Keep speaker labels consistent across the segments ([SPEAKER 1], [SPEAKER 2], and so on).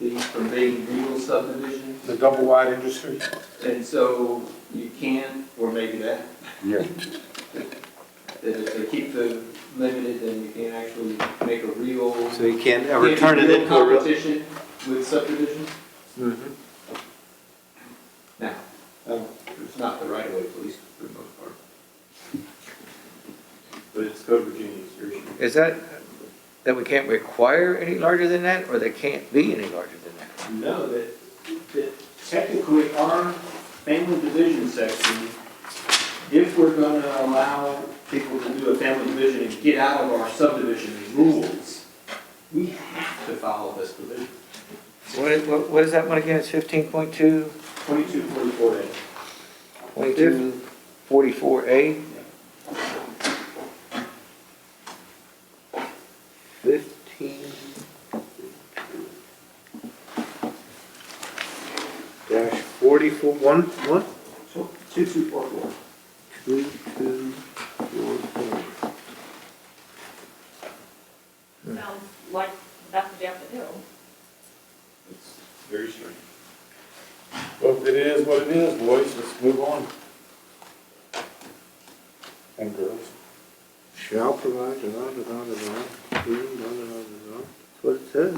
[SPEAKER 1] the forbidden rural subdivision.
[SPEAKER 2] The double wide industry?
[SPEAKER 1] And so you can, or maybe that,
[SPEAKER 2] Yeah.
[SPEAKER 1] that if they keep the limited, then you can actually make a real.
[SPEAKER 3] So you can't
[SPEAKER 1] Can't
[SPEAKER 3] ever
[SPEAKER 1] be
[SPEAKER 3] turn it
[SPEAKER 1] real
[SPEAKER 3] into a real. Mm-hmm.
[SPEAKER 1] Competition with subdivisions? Now, um, it's not the right way, at least for the most part. But it's Code Virginia, it's your issue.
[SPEAKER 4] Is that, that we can't require any larger than that, or they can't be any larger than that?
[SPEAKER 5] No, that, that technically our family division section, if we're gonna allow people to do a family division and get out of our subdivision rules, we have to follow this provision,
[SPEAKER 4] What is- What, what is that one again, it's fifteen point two,
[SPEAKER 5] twenty-two forty-four A.
[SPEAKER 4] twenty-two, forty-four A?
[SPEAKER 3] Fifteen. Dash forty-four, one, one,
[SPEAKER 5] Two-two four-four.
[SPEAKER 3] two, two, four, four.
[SPEAKER 6] Sounds like that's what you have to do.
[SPEAKER 5] It's very strange.
[SPEAKER 2] Well, it is what it is, boys, let's move on. And girls.
[SPEAKER 3] Shall provide, da, da, da, da, da, mm, da, da, da, da, da. That's what it says.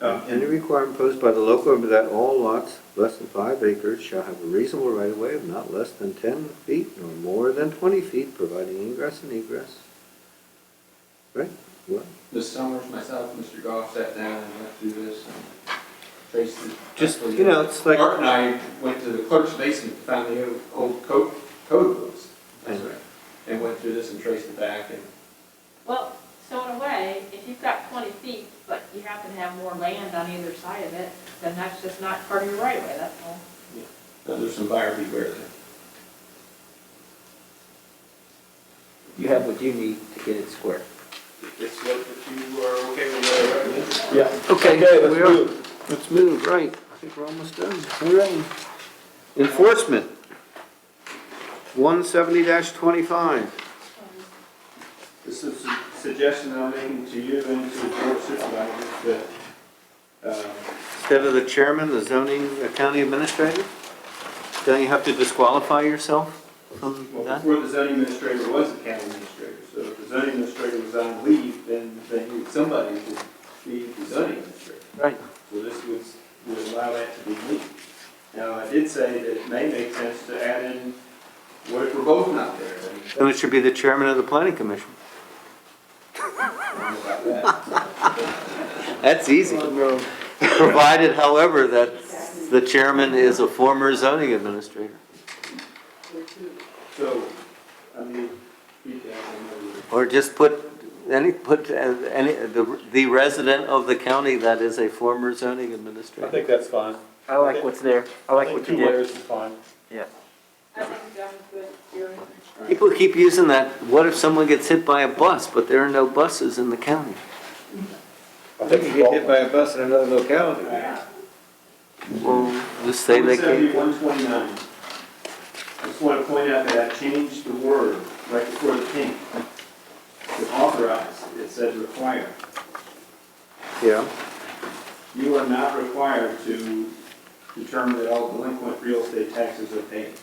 [SPEAKER 5] Um,
[SPEAKER 3] Any requirement imposed by the local government that all lots less than five acres shall have a reasonable right of way of not less than ten feet nor more than twenty feet, providing ingress and egress. Right? What?
[SPEAKER 1] This summer, myself and Mr. Goff sat down and went through this and traced it.
[SPEAKER 3] Just, you know, it's like-
[SPEAKER 1] Art and I went to the clerk's basement, found the old- old code, code books. That's
[SPEAKER 3] Mhm.
[SPEAKER 1] right. And went through this and traced it back and
[SPEAKER 6] Well, so in a way, if you've got twenty feet, but you happen to have more land on either side of it, then that's just not part of your right of way, that's all.
[SPEAKER 1] now there's some buyer beware there.
[SPEAKER 4] You have what you need to get it square.
[SPEAKER 1] It's what if you are okay with that, right?
[SPEAKER 2] Yeah.
[SPEAKER 3] Okay,
[SPEAKER 2] let's
[SPEAKER 3] we are-
[SPEAKER 2] move.
[SPEAKER 3] Let's move, right, I think we're almost done. All right. Enforcement. One seventy twenty-five.
[SPEAKER 5] This is a suggestion I'm making to you and to the board of supervisors that, um,
[SPEAKER 3] Instead of the chairman, the zoning, the county administrator? Don't you have to disqualify yourself from
[SPEAKER 5] Well,
[SPEAKER 3] that?
[SPEAKER 5] before the zoning administrator was the county administrator, so if the zoning administrator was on leave, then, then he- somebody would be the zoning administrator.
[SPEAKER 3] Right.
[SPEAKER 5] So this would, would allow that to be legal. Now, I did say that it may make sense to add in, what if we're both not there? Then I
[SPEAKER 3] Then it should be the chairman of the planning commission.
[SPEAKER 5] don't know about that.
[SPEAKER 3] That's easy. Provided, however, that the chairman is a former zoning administrator
[SPEAKER 5] So, I mean, he can, I don't know.
[SPEAKER 3] or just put any, put uh, any, the the resident of the county that is a former zoning
[SPEAKER 2] I
[SPEAKER 3] administrator.
[SPEAKER 2] think that's fine.
[SPEAKER 4] I like what's there, I like what you
[SPEAKER 2] Two
[SPEAKER 4] did.
[SPEAKER 2] layers is fine.
[SPEAKER 6] I think that was good, you
[SPEAKER 3] People keep using that, what if someone gets hit by a bus, but there are no buses in the county?
[SPEAKER 2] I
[SPEAKER 4] They
[SPEAKER 2] think
[SPEAKER 4] could
[SPEAKER 2] it's
[SPEAKER 4] get hit by
[SPEAKER 2] all-
[SPEAKER 4] a bus in another locality.
[SPEAKER 3] Well, just say they can't.
[SPEAKER 5] 17129. I just want to point out that I changed the word right before the pink. To authorize, it says require.
[SPEAKER 3] Yeah.
[SPEAKER 5] You are not required to determine that all delinquent real estate taxes are paid.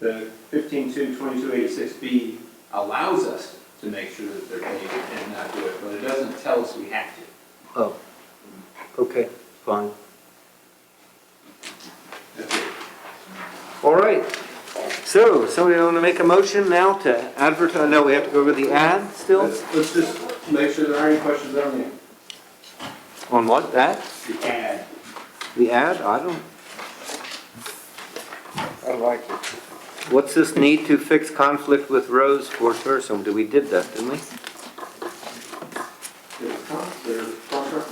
[SPEAKER 5] The 15-2286B
[SPEAKER 1] allows us to make sure that they're paid and not do it, but it doesn't tell us we have to.
[SPEAKER 3] Oh, okay, fine.
[SPEAKER 5] that's it.
[SPEAKER 3] All right. So, somebody want to make a motion now to advertise, no, we have to go over the ad still?
[SPEAKER 1] Let's, let's just make sure there aren't any questions on there.
[SPEAKER 3] On what, that?
[SPEAKER 5] The ad.
[SPEAKER 3] The ad? I don't,
[SPEAKER 4] I like it.
[SPEAKER 3] what's this need to fix conflict with Rose for tourism? Do we did that, didn't we?
[SPEAKER 5] There's con- there's contra-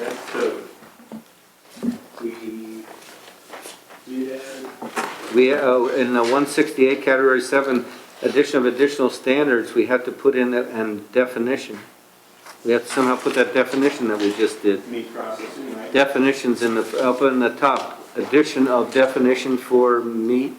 [SPEAKER 5] That's so. We did add,
[SPEAKER 3] We, oh, in the one sixty-eight, category seven, addition of additional standards, we have to put in a- and definition. We have to somehow put that definition that we just did.
[SPEAKER 5] meat processing, right?
[SPEAKER 3] definitions in the, up in the top, addition of definition for meat